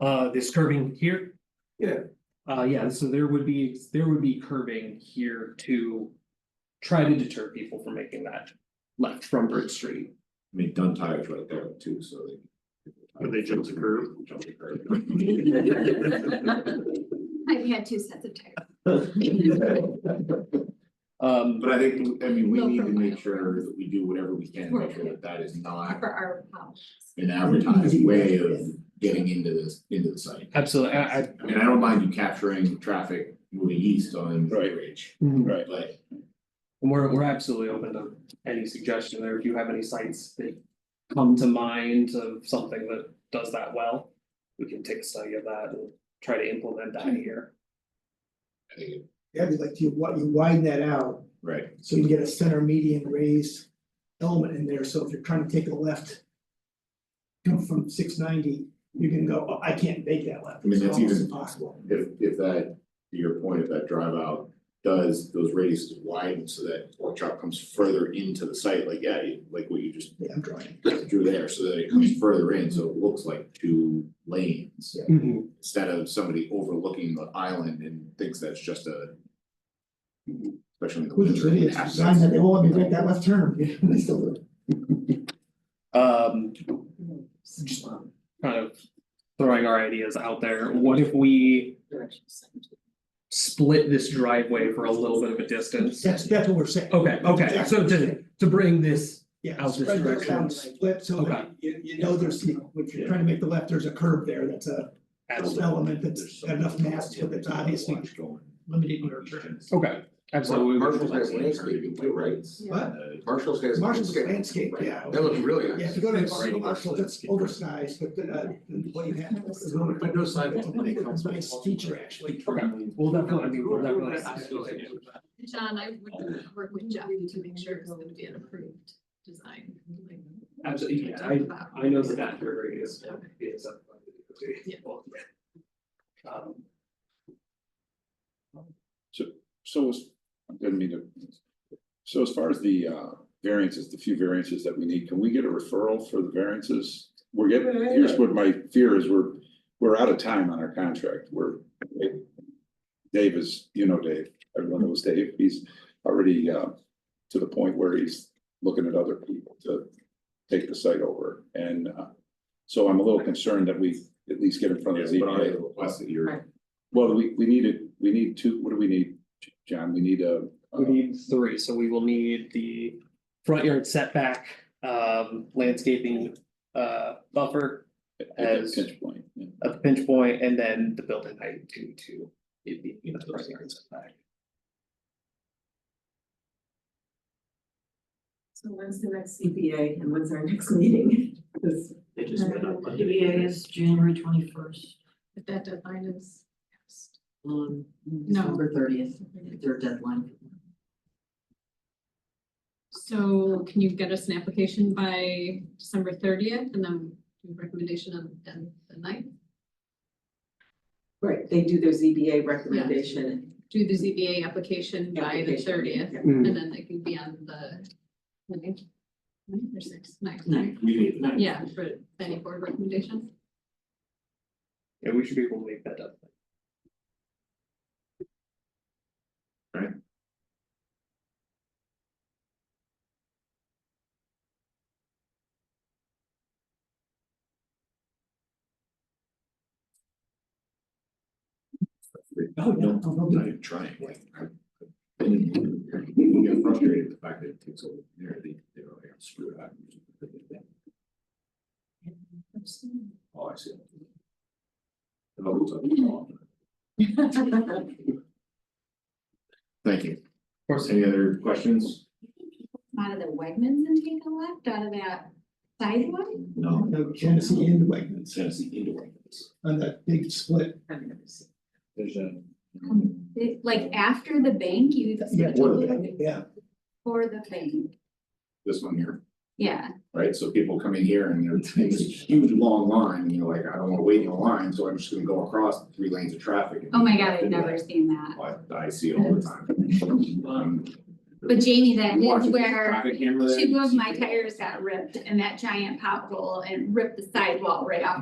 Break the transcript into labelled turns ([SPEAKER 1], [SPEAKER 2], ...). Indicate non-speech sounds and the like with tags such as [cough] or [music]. [SPEAKER 1] Uh, this curving here?
[SPEAKER 2] Yeah.
[SPEAKER 1] Uh, yeah, so there would be, there would be curving here to try to deter people from making that left from Bridge Street.
[SPEAKER 3] I mean, done tires right there too, so they.
[SPEAKER 2] Or they jump the curve?
[SPEAKER 3] Jump the curve.
[SPEAKER 4] I've had two sets of tires.
[SPEAKER 1] Um,
[SPEAKER 3] But I think, I mean, we
[SPEAKER 4] No,
[SPEAKER 3] need to
[SPEAKER 4] from my-
[SPEAKER 3] make sure that we do whatever we can to make sure
[SPEAKER 4] Right.
[SPEAKER 3] that that is not
[SPEAKER 4] For our house.
[SPEAKER 3] an advertised way of getting into this, into the site.
[SPEAKER 1] absolutely, I, I,
[SPEAKER 3] I mean, I don't mind you capturing traffic moving east on Great Ridge,
[SPEAKER 1] mhm.
[SPEAKER 2] Right.
[SPEAKER 3] but
[SPEAKER 1] We're, we're absolutely open to any suggestion there, if you have any sites that come to mind of something that does that well. We can take a study of that and try to implement that here.
[SPEAKER 3] I think, it-
[SPEAKER 5] Yeah, it'd be like you, wi- you widen that out,
[SPEAKER 3] right,
[SPEAKER 5] so you get a center median raised element in there, so if you're trying to take a left. Come from six ninety, you can go, "Oh, I can't make that left,
[SPEAKER 3] I mean,
[SPEAKER 5] it's
[SPEAKER 3] that's
[SPEAKER 5] almost
[SPEAKER 3] even
[SPEAKER 5] impossible.
[SPEAKER 3] if if that, to your point, if that drive out does, those radiuses widen so that pork chop comes further into the site, like, yeah, you- like what you just
[SPEAKER 5] Yeah, I'm drawing.
[SPEAKER 3] drew there, so that it comes further in, so it looks like two lanes. Instead of somebody overlooking the island and thinks that's just a. Especially in the
[SPEAKER 5] With the
[SPEAKER 3] winter.
[SPEAKER 5] trivia, it's designed that they won't let me make that left turn, [laughs] they still do. it.
[SPEAKER 1] Um, just kind of throwing our ideas out there, what if we split this driveway for a little bit of a distance?
[SPEAKER 5] That's, that's what we're saying.
[SPEAKER 1] Okay, okay, so to, to bring this,
[SPEAKER 5] Yeah,
[SPEAKER 1] Out this
[SPEAKER 5] spread those
[SPEAKER 1] direction.
[SPEAKER 5] out, split, so that
[SPEAKER 1] Okay.
[SPEAKER 5] you, you know there's, you know, if you're trying to make the left, there's a curve there, that's a
[SPEAKER 1] absolutely,
[SPEAKER 5] element that's got enough mass to it, that's obviously limited your turn.
[SPEAKER 1] okay, absolutely.
[SPEAKER 6] Marshall's got landscaping too, right?
[SPEAKER 5] What?
[SPEAKER 6] Marshall's got.
[SPEAKER 5] Marshall's landscape, yeah.
[SPEAKER 6] That looks really
[SPEAKER 5] Yeah, if
[SPEAKER 6] nice.
[SPEAKER 5] you go
[SPEAKER 1] It's
[SPEAKER 5] to
[SPEAKER 1] already
[SPEAKER 5] Marshall, that's oversized, but uh, what you have. is one of the-
[SPEAKER 6] But no sign.
[SPEAKER 5] It's a Nice feature, actually.
[SPEAKER 1] Okay, we'll definitely, I mean, we'll definitely.
[SPEAKER 4] John, I would work with Jeff to make sure it's gonna be an approved design. like-
[SPEAKER 1] Absolutely, yeah, I know that that very is, is. a-
[SPEAKER 4] Yeah.
[SPEAKER 1] Um,
[SPEAKER 7] So as, I didn't mean to. So as far as the uh variances, the few variances that we need, can we get a referral for the variances? We're getting, here's what my fear is, we're, we're out of time on our contract, we're. Dave is, you know Dave, everyone knows Dave, he's already uh to the point where he's looking at other people to take the site over and uh. So I'm a little concerned that we at least get in front of the
[SPEAKER 3] but I
[SPEAKER 7] ZBA.
[SPEAKER 3] request that you're,
[SPEAKER 7] Well, we, we need it, we need two, what do we need, John? We need a.
[SPEAKER 1] We need three, so we will need the front yard setback, um, landscaping, uh, buffer
[SPEAKER 7] At
[SPEAKER 1] as
[SPEAKER 7] that uh, pinch point, yeah.
[SPEAKER 1] at the pinch point, and then the building height to, to. It be, you know, the front yard setback.
[SPEAKER 8] So when's the next CPA and when's our next meeting? [laughs] Because
[SPEAKER 2] They just went up.
[SPEAKER 8] the CPA is January twenty first,
[SPEAKER 4] But that deadline is. passed.
[SPEAKER 8] um,
[SPEAKER 4] No.
[SPEAKER 8] December thirtieth, their deadline.
[SPEAKER 4] So can you get us an application by December thirtieth and then recommendation on the the ninth?
[SPEAKER 8] Right, they do their ZBA recommendation.
[SPEAKER 4] Do the ZBA application by the
[SPEAKER 8] application.
[SPEAKER 4] thirtieth
[SPEAKER 8] Yeah.
[SPEAKER 4] and then they can be on the. ninth, ninth or sixth, ninth,
[SPEAKER 8] Ninth.
[SPEAKER 3] we need
[SPEAKER 4] yeah, for any board recommendation.
[SPEAKER 1] Yeah, we should be able to make that up.
[SPEAKER 5] Oh, yeah.
[SPEAKER 3] No, I'm not even trying, like, I. I didn't- You get frustrated with the fact that it takes over there, they, they're like, "I'm screwed up. Oh, I see. And I'll lose it. Thank you.
[SPEAKER 1] Of course,
[SPEAKER 3] Any other questions?
[SPEAKER 9] out of the Wegmans and take a left out of that sidewalk?
[SPEAKER 3] No.
[SPEAKER 5] No, Genesee and Wegmans
[SPEAKER 3] Tennessee indoor.
[SPEAKER 5] on that big split.
[SPEAKER 8] I've never seen.
[SPEAKER 3] There's a.
[SPEAKER 9] It- Like after the bank, you switch
[SPEAKER 3] what are
[SPEAKER 9] over
[SPEAKER 3] they?
[SPEAKER 5] Yeah,
[SPEAKER 9] for the bank,
[SPEAKER 3] This one here.
[SPEAKER 9] yeah.
[SPEAKER 3] right? So people come in here and they're in this huge long line, and you're like, I don't wanna wait in a line, so I'm just gonna go across three lanes of traffic.
[SPEAKER 9] Oh my god, I've never seen that.
[SPEAKER 3] I I see it all
[SPEAKER 9] [laughs]
[SPEAKER 3] the time. Um,
[SPEAKER 9] But Jamie, that
[SPEAKER 3] watch
[SPEAKER 9] is
[SPEAKER 3] the
[SPEAKER 9] where
[SPEAKER 3] Traffic camera there.
[SPEAKER 9] two of my tires got ripped and that giant pothole and ripped the sidewall right off